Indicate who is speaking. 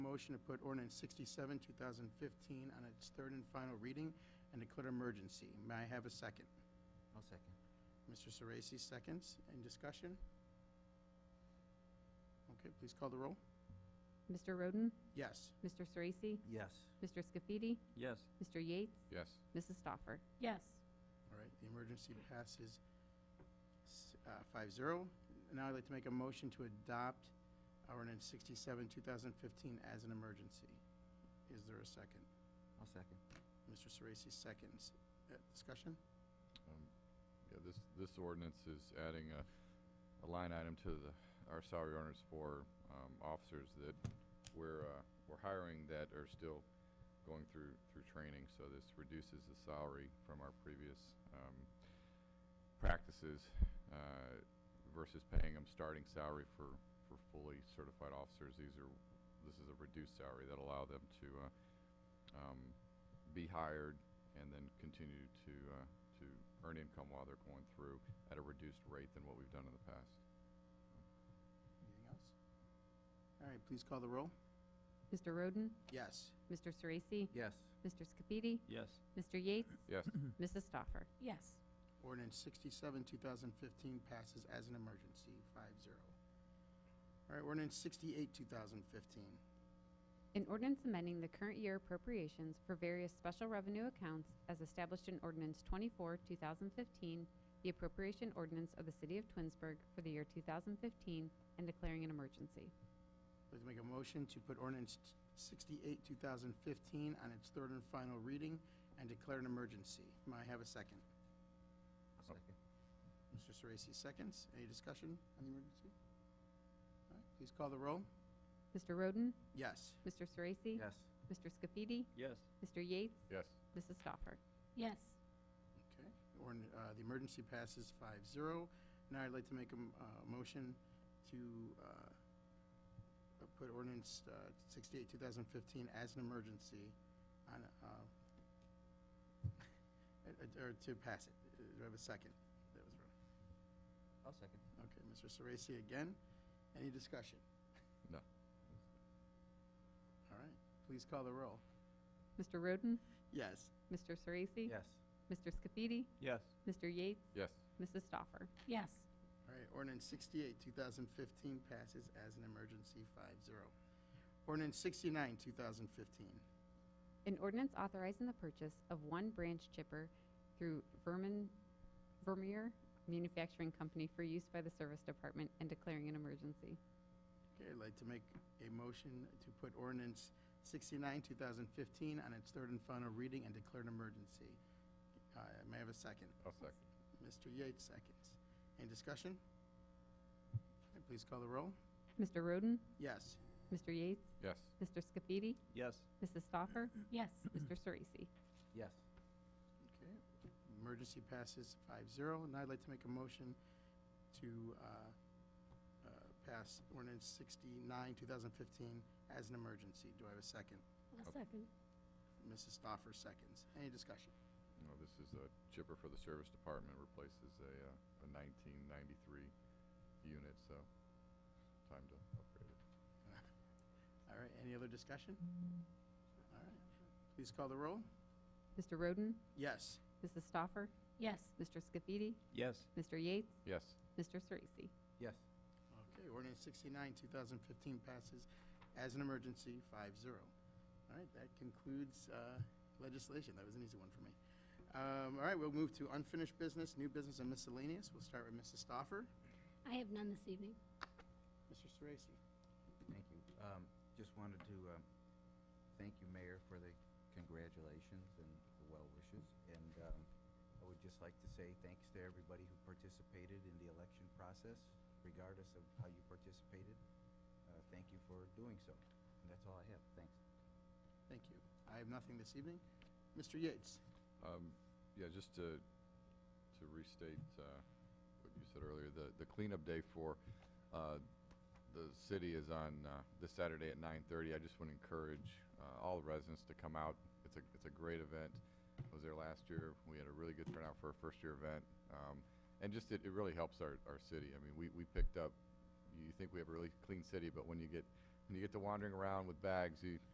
Speaker 1: motion to put ordinance 67, 2015 on its third and final reading and declare emergency. May I have a second?
Speaker 2: I'll second.
Speaker 1: Mr. Sorese seconds. Any discussion? Okay, please call the roll.
Speaker 3: Mr. Roden?
Speaker 1: Yes.
Speaker 3: Mr. Sorese?
Speaker 2: Yes.
Speaker 3: Mr. Scafidi?
Speaker 4: Yes.
Speaker 3: Mr. Yates?
Speaker 4: Yes.
Speaker 3: Mrs. Stoffer?
Speaker 5: yes,
Speaker 1: All right, the emergency passes s- uh, 5-0. Now I'd like to make a motion to adopt ordinance 67, 2015 as an emergency. Is there a second?
Speaker 2: I'll second.
Speaker 1: Mr. Sorese seconds. Uh, Discussion?
Speaker 4: Um, Yeah, this, this ordinance is adding a, a line item to the, our salary ordinance for, um, officers that we're, uh, we're hiring that are still going through, through training, so this reduces the salary from our previous, um, practices, uh, versus paying them starting salary for, for fully certified officers. These are, this is a reduced salary that allow them to, uh, um, be hired and then continue to, uh, to earn income while they're going through at a reduced rate than what we've done in the past.
Speaker 1: Anything else? All right, please call the roll.
Speaker 3: Mr. Roden?
Speaker 1: Yes.
Speaker 3: Mr. Sorese?
Speaker 2: Yes.
Speaker 3: Mr. Scafidi?
Speaker 4: Yes.
Speaker 3: Mr. Yates?
Speaker 4: Yes.
Speaker 3: Mrs. Stoffer?
Speaker 5: yes.
Speaker 1: Ordinance 67, 2015 passes as an emergency, 5-0. All right, ordinance 68, 2015.
Speaker 3: An ordinance amending the current year appropriations for various special revenue accounts as established in Ordinance 24, 2015, the appropriation ordinance of the City of Twinsburg for the year 2015, and declaring an emergency.
Speaker 1: I'd like to make a motion to put ordinance t- 68, 2015 on its third and final reading and declare an emergency. May I have a second?
Speaker 2: I'll second.
Speaker 1: Mr. Sorese seconds. Any discussion on the emergency? All right, please call the roll.
Speaker 3: Mr. Roden?
Speaker 1: Yes.
Speaker 3: Mr. Sorese?
Speaker 2: Yes.
Speaker 3: Mr. Scafidi?
Speaker 4: Yes.
Speaker 3: Mr. Yates?
Speaker 4: Yes.
Speaker 3: Mrs. Stoffer?
Speaker 5: Yes.
Speaker 1: Okay, Ordin uh, the emergency passes 5-0. Now I'd like to make a, m- uh, motion to, uh, uh, put ordinance, uh, sixty-eight, two thousand fifteen as an emergency on, uh, uh, or to pass it. Uh, Do I have a second? That was wrong.
Speaker 2: I'll second.
Speaker 1: Okay, Mr. Sorese again. Any discussion?
Speaker 4: No.
Speaker 1: All right, please call the roll.
Speaker 3: Mr. Roden?
Speaker 1: Yes.
Speaker 3: Mr. Sorese?
Speaker 2: Yes.
Speaker 3: Mr. Scafidi?
Speaker 4: Yes.
Speaker 3: Mr. Yates?
Speaker 4: Yes.
Speaker 3: Mrs. Stoffer?
Speaker 5: Yes.
Speaker 1: All right, ordinance sixty-eight, two thousand fifteen passes as an emergency, five zero. Ordinance sixty-nine, two thousand fifteen.
Speaker 3: An ordinance authorizing the purchase of one branch chipper through Vermin, Vermeer Manufacturing Company for use by the Service Department and declaring an emergency.
Speaker 1: Okay, I'd like to make a motion to put ordinance sixty-nine, two thousand fifteen on its third and final reading and declare an emergency. Uh, may I have a second?
Speaker 4: I'll second.
Speaker 1: Mr. Yates seconds. Any discussion? Okay, Please call the roll.
Speaker 3: Mr. Roden?
Speaker 1: Yes.
Speaker 3: Mr. Yates?
Speaker 4: Yes.
Speaker 3: Mr. Scafidi?
Speaker 4: Yes.
Speaker 3: Mrs. Stoffer?
Speaker 5: Yes.
Speaker 3: Mr. Sorese?
Speaker 2: Yes.
Speaker 1: Okay, emergency passes 5-0. and I'd like to make a motion to uh, uh, pass ordinance sixty-nine, two thousand fifteen as an emergency. Do I have a second?
Speaker 5: A second.
Speaker 1: Mrs. Stoffer seconds. Any discussion?
Speaker 4: No, this is a chipper for the service department, replaces a, uh, a nineteen ninety-three unit, so time to upgrade it.
Speaker 1: All right, any other discussion? All right, please call the roll.
Speaker 3: Mr. Roden?
Speaker 1: Yes.
Speaker 3: Mrs. Stoffer?
Speaker 5: Yes.
Speaker 3: Mr. Scafidi?
Speaker 4: Yes.
Speaker 3: Mr. Yates?
Speaker 4: Yes.
Speaker 3: Mr. Sorese?
Speaker 2: Yes.
Speaker 1: Okay, ordinance sixty-nine, two thousand fifteen passes as an emergency, 5-0. All right, that concludes uh, legislation. That was an easy one for me. Um, All right, we'll move to unfinished business, new business, and miscellaneous. We'll start with Mrs. Stoffer.
Speaker 5: I have none this evening.
Speaker 1: Mr. Sorese.
Speaker 2: Thank you. Um, just wanted to, um, thank you, Mayor, for the congratulations and the well wishes. And, um, I would just like to say thanks to everybody who participated in the election process, regardless of how you participated. Uh, thank you for doing so. And that's all I have. Thanks.
Speaker 1: Thank you. I have nothing this evening. Mr. Yates.
Speaker 4: Um, yeah, just to, to restate, uh, what you said earlier, the, the cleanup day for, uh, the city is on, uh, this Saturday at nine thirty. I just want to encourage, uh, all residents to come out. It's a, it's a great event. I was there last year. We had a really good turnout for a first-year event. Um, and just, it, it really helps our, our city. I mean, we, we picked up, you think we have a really clean city, but when you get When you get to wandering around with bags, you,